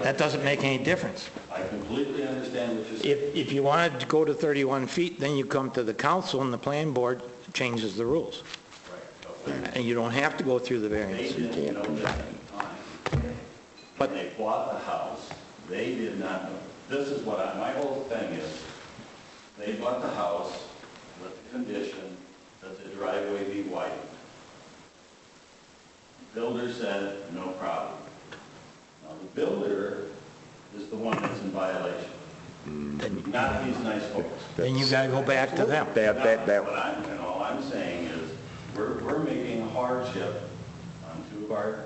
That doesn't make any difference. I completely understand what you're saying. If, if you wanted to go to 31 feet, then you come to the council and the plan board changes the rules. And you don't have to go through the They variance. didn't know that at the time. But- When they bought the house, they did not know. This is what I, my whole thing is, they bought the house with the condition that the driveway be widened. Builder said, no problem. Now, the builder is the one that's in violation, not these nice folks. Then you gotta go back to them. That, that, No, that, What I'm, and all I'm saying is, we're, we're making a hardship on two of our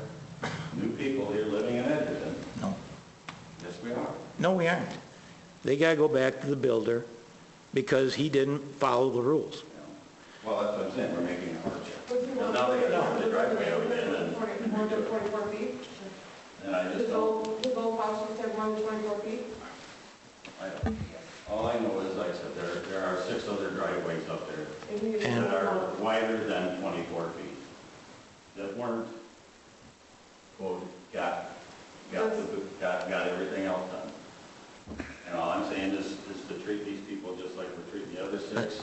new people here living in Edgerton. No. Yes, we are. No, we aren't. They gotta go back to the builder because he didn't follow the rules. Well, that's what I'm saying, we're making a hardship. Well, now they got the driveway out again, and, More than 24 feet? and I just His don't, old, his old house was at more than 24 feet? I don't. All I know is, like I said, there, there are six other driveways up there And uh, he was- And- that are wider than 24 feet, that weren't, quote, got, got, the- got, got everything else done. And all I'm saying is, is to treat these people just like we're treating the other six,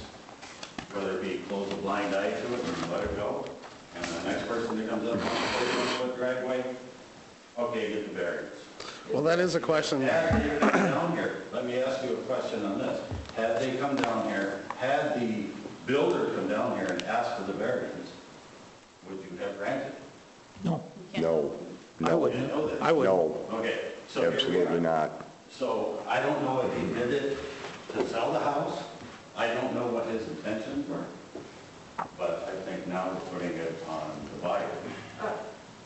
whether it be close a blind eye to it and let it go, and the next person that comes up "Oh, on the 41-foot driveway, okay, get the variance. Well, that is a question that, Have they come down here, let me ask you a question on this. Had they come down here, had the builder come down here and asked for the variance, would you have granted? it? No, no, I no, wouldn't. I wouldn't. no, Okay, so here we are. absolutely not. So I don't know if he did it to sell the house. I don't know what his intentions were. But I think now we're putting it on the buyer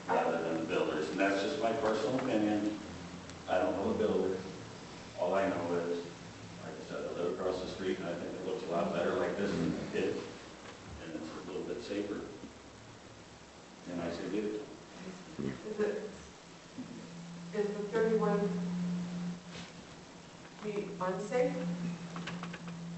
rather than the builders. And that's just my personal opinion. I don't know the builder. All I know is, like I said, I live across the street and I think it looks a lot better like this than it did. And it's a little bit safer. And I say, give it to 'em. Is it, is the 31 feet unsafe?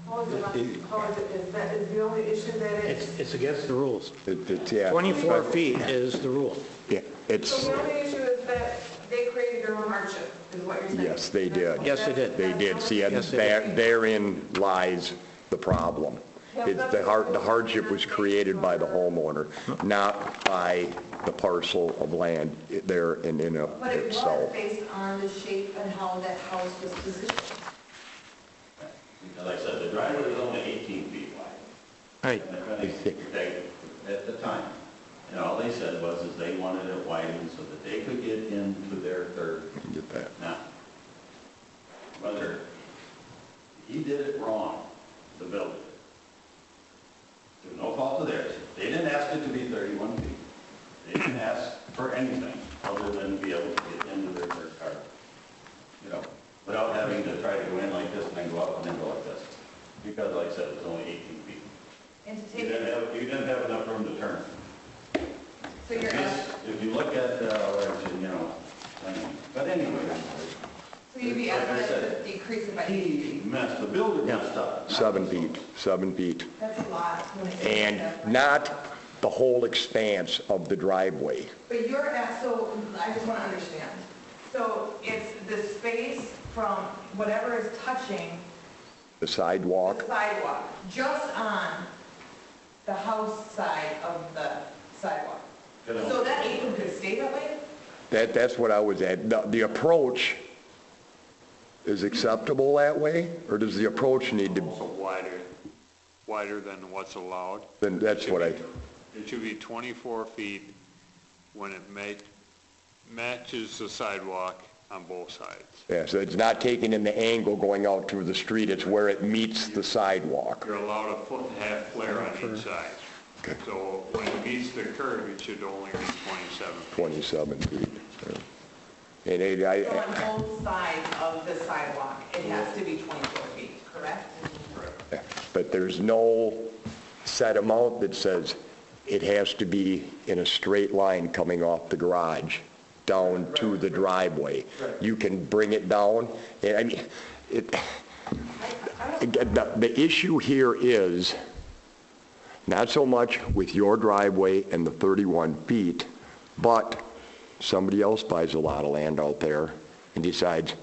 How is it, un- how is it, is that, is the only issue that It's, it's? it's against the rules. It- it's- yeah, 24 but- feet is the rule. Yeah, So it's, the only issue is that they created their own hardship, is what you're saying? Yes, they did. Yes, they did. they did, see, and Yes, they there- therein lies the problem. It's the har- the hardship was created by the homeowner, not by the parcel of land there and in of But it was itself. based on the shape and how that house was positioned. Because like I said, the driveway was only 18 feet wide. All right, They- At the time, and all they said was, is they wanted it widened so that they could get into their third. Get that. Now, whether he did it wrong, the builder, through no fault of theirs, they didn't ask it to be 31 feet. They didn't ask for anything other than to be able to get into their third car, you know, without having to try to go in like this and then go out and then go like this. Because like I said, it was only 18 feet. And to You take didn't it, have, you didn't have enough room to turn. so you're, ask- If you look at, uh, what you you know, I mean, but anyway, so you'd be asking us to decrease it by eight he feet. messed, the builder messed up. not Seven the feet, builder. seven feet. That's a lot. when it's- and not the whole expanse of the driveway. But you're at, so I just want to understand. So it's the space from whatever is touching The the sidewalk, sidewalk, just on the house side of the sidewalk. Good on. So that apron could stay that way? that, that's what I was at. The, the approach is acceptable that way, or does the approach need also to, wider, wider than what's allowed. then that's what I, It should be 24 feet when it make, matches the sidewalk on both sides. yeah, so it's not taking in the angle going out through the street, it's where it meets the sidewalk. You're allowed a foot and a half flare on each side. So when it meets the curb, it should only be 27. 27 feet. And it, So I, on both sides of the sidewalk, it has to be 24 feet, correct? but there's no set amount that says it has to be in a straight line coming off the garage down to the driveway. You can bring it down, and I mean, it, again, the, the issue here is not so much with your driveway and the 31 feet, but somebody else buys a lot of land out there and decides,